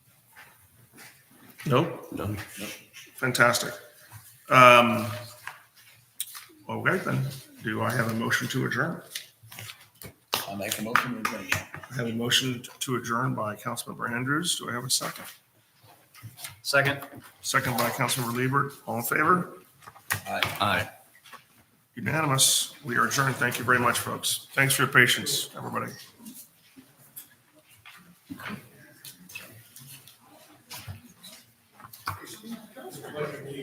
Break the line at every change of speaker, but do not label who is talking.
Nope.
No.
Fantastic. Um, okay, then, do I have a motion to adjourn?
I'll make a motion to adjourn.
I have a motion to adjourn by Councilmember Andrews. Do I have a second?
Second.
Second by Councilmember Liebert. All in favor?
Aye.
Aye.
Unanimous. We are adjourned. Thank you very much, folks. Thanks for your patience, everybody.